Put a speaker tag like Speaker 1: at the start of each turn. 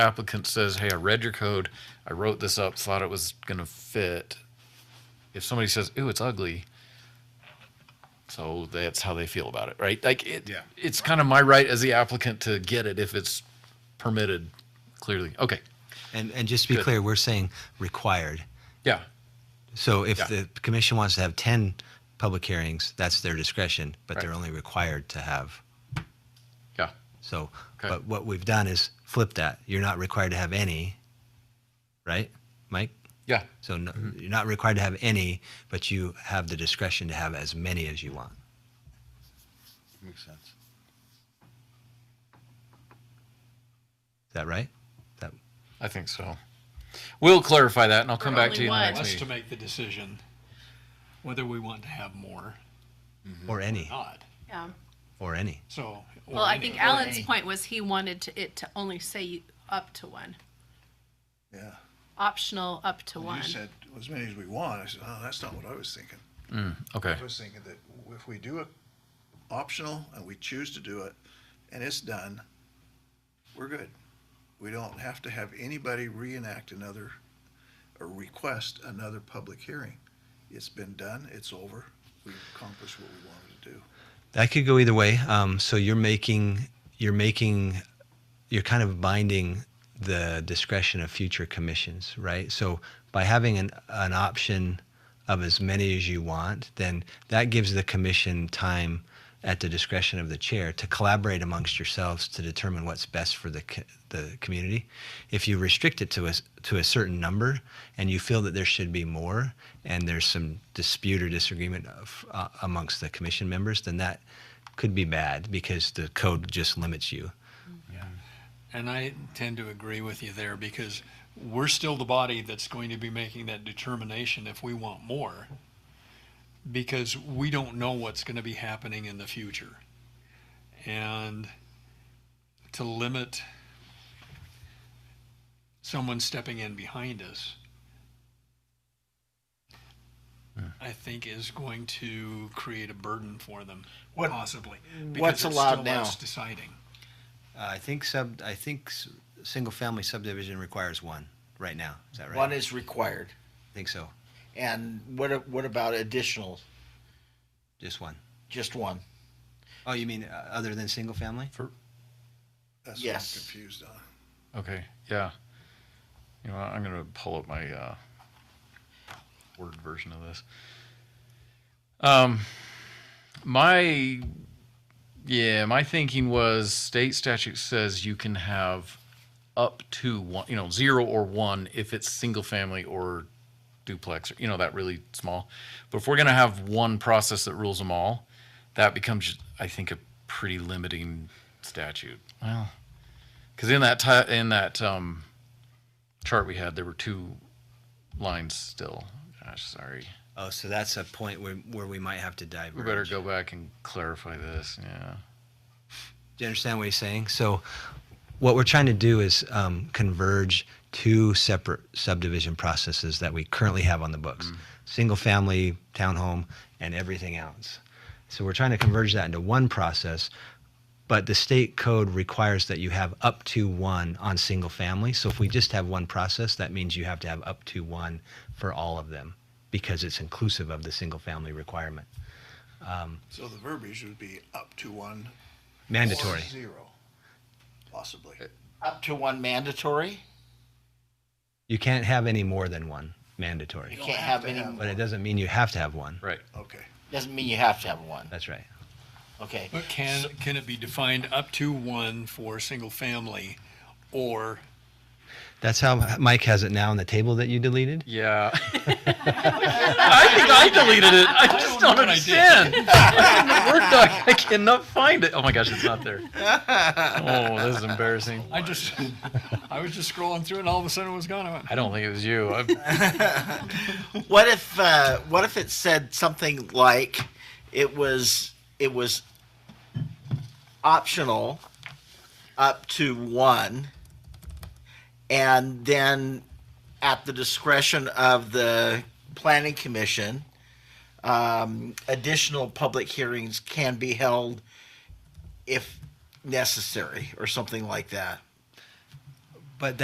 Speaker 1: applicant says, hey, I read your code, I wrote this up, thought it was gonna fit. If somebody says, ooh, it's ugly, so that's how they feel about it, right? Like, it,
Speaker 2: Yeah.
Speaker 1: it's kind of my right as the applicant to get it if it's permitted, clearly. Okay,
Speaker 3: And, and just to be
Speaker 1: Good.
Speaker 3: clear, we're saying required.
Speaker 1: yeah,
Speaker 3: So if
Speaker 1: Yeah.
Speaker 3: the commission wants to have 10 public hearings, that's their discretion, but they're
Speaker 1: Right.
Speaker 3: only required to have.
Speaker 1: yeah,
Speaker 3: So,
Speaker 1: Okay.
Speaker 3: but what we've done is flip that. You're not required to have any, right, Mike?
Speaker 1: yeah.
Speaker 3: So no,
Speaker 1: Mm-hmm.
Speaker 3: you're not required to have any, but you have the discretion to have as many as you want.
Speaker 2: Makes sense.
Speaker 3: Is that right? That,
Speaker 1: I think so. We'll clarify that, and I'll come
Speaker 4: For
Speaker 1: back to
Speaker 4: only
Speaker 1: you in the
Speaker 4: one.
Speaker 1: next
Speaker 5: us to
Speaker 1: meeting.
Speaker 5: make the decision whether we want to have more
Speaker 3: or any,
Speaker 5: or not.
Speaker 4: Yeah.
Speaker 3: or any.
Speaker 5: So. or
Speaker 4: Well, I
Speaker 5: any.
Speaker 4: think Alan's point was he wanted to, it to only say up to one,
Speaker 2: Yeah.
Speaker 4: optional up to one.
Speaker 2: You said as many as we want. I said, oh, that's not what I was thinking.
Speaker 1: Okay,
Speaker 2: I was thinking that if we do it optional and we choose to do it and it's done, we're good. We don't have to have anybody reenact another or request another public hearing. It's been done, it's over. We accomplished what we wanted to do.
Speaker 3: That could go either way. Um, so you're making you're making you're kind of binding the discretion of future commissions, right? So by having an an option of as many as you want, then that gives the commission time at the discretion of the chair to collaborate amongst yourselves to determine what's best for the co- the community. If you restrict it to a s- to a certain number and you feel that there should be more, and there's some dispute or disagreement of, uh, amongst the commission members, then that could be bad because the code just limits you.
Speaker 5: And I tend to agree with you there because we're still the body that's going to be making that determination if we want more. Because we don't know what's going to be happening in the future. And to limit someone stepping in behind us, I think is going to create a burden for them,
Speaker 6: What-
Speaker 5: possibly. because
Speaker 6: what's
Speaker 5: it's
Speaker 6: allowed
Speaker 5: still us
Speaker 6: now?
Speaker 5: Deciding.
Speaker 3: Uh, I think sub. I think s- single-family subdivision requires one right now. Is that right?
Speaker 6: One is required.
Speaker 3: I think so.
Speaker 6: And what, a- what about additional,
Speaker 3: Just one.
Speaker 6: just one?
Speaker 3: Oh, you mean uh, other than single-family?
Speaker 2: That's what I'm
Speaker 6: Yes.
Speaker 2: confused on.
Speaker 1: okay, yeah. You know, what, I'm gonna pull up my, uh, word version of this. Um, my, yeah, my thinking was state statute says you can have up to one, you know, zero or one if it's single family or duplex, or, you know, that really small. But if we're gonna have one process that rules them all, that becomes, I think, a pretty limiting statute. Well, because in that ti- in that um, chart we had, there were two lines still. Gosh, sorry.
Speaker 3: Oh, so that's a point where, where we might have to dive.
Speaker 1: We better go back and clarify this. Yeah.
Speaker 3: Do you understand what he's saying? So, what we're trying to do is um, converge two separate subdivision processes that we currently have on the books single family, townhome, and everything else. So, we're trying to converge that into one process, but the state code requires that you have up to one on single family. So, if we just have one process, that means you have to have up to one for all of them because it's inclusive of the single family requirement.
Speaker 2: So the verbiage would be up to one. or
Speaker 3: Mandatory.
Speaker 2: Zero, possibly.
Speaker 6: Up to one mandatory?
Speaker 3: You can't have any more than one mandatory.
Speaker 6: You
Speaker 2: don't
Speaker 6: can't
Speaker 2: have
Speaker 6: have
Speaker 2: to
Speaker 6: any,
Speaker 2: have-
Speaker 3: But it doesn't mean you have to have one.
Speaker 1: Right.
Speaker 2: Okay.
Speaker 6: doesn't mean you have to have one,
Speaker 3: That's right.
Speaker 6: okay?
Speaker 5: But can, can it be defined up to one for single family or
Speaker 3: That's how Mike has it now on the table that you deleted.
Speaker 1: Yeah. I think I deleted it. I just
Speaker 5: know
Speaker 1: don't,
Speaker 5: what I did.
Speaker 1: understand. I'm in the Word doc. I cannot find it. Oh my gosh, it's not there. Oh, this is embarrassing.
Speaker 5: I just, I was just scrolling through and all of a sudden it was gone. I went,
Speaker 1: I don't think it was you. I'm,
Speaker 6: What if, uh, what if it said something like, it was, it was optional up to one? And then at the discretion of the planning commission, um, additional public hearings can be held if necessary or something like that.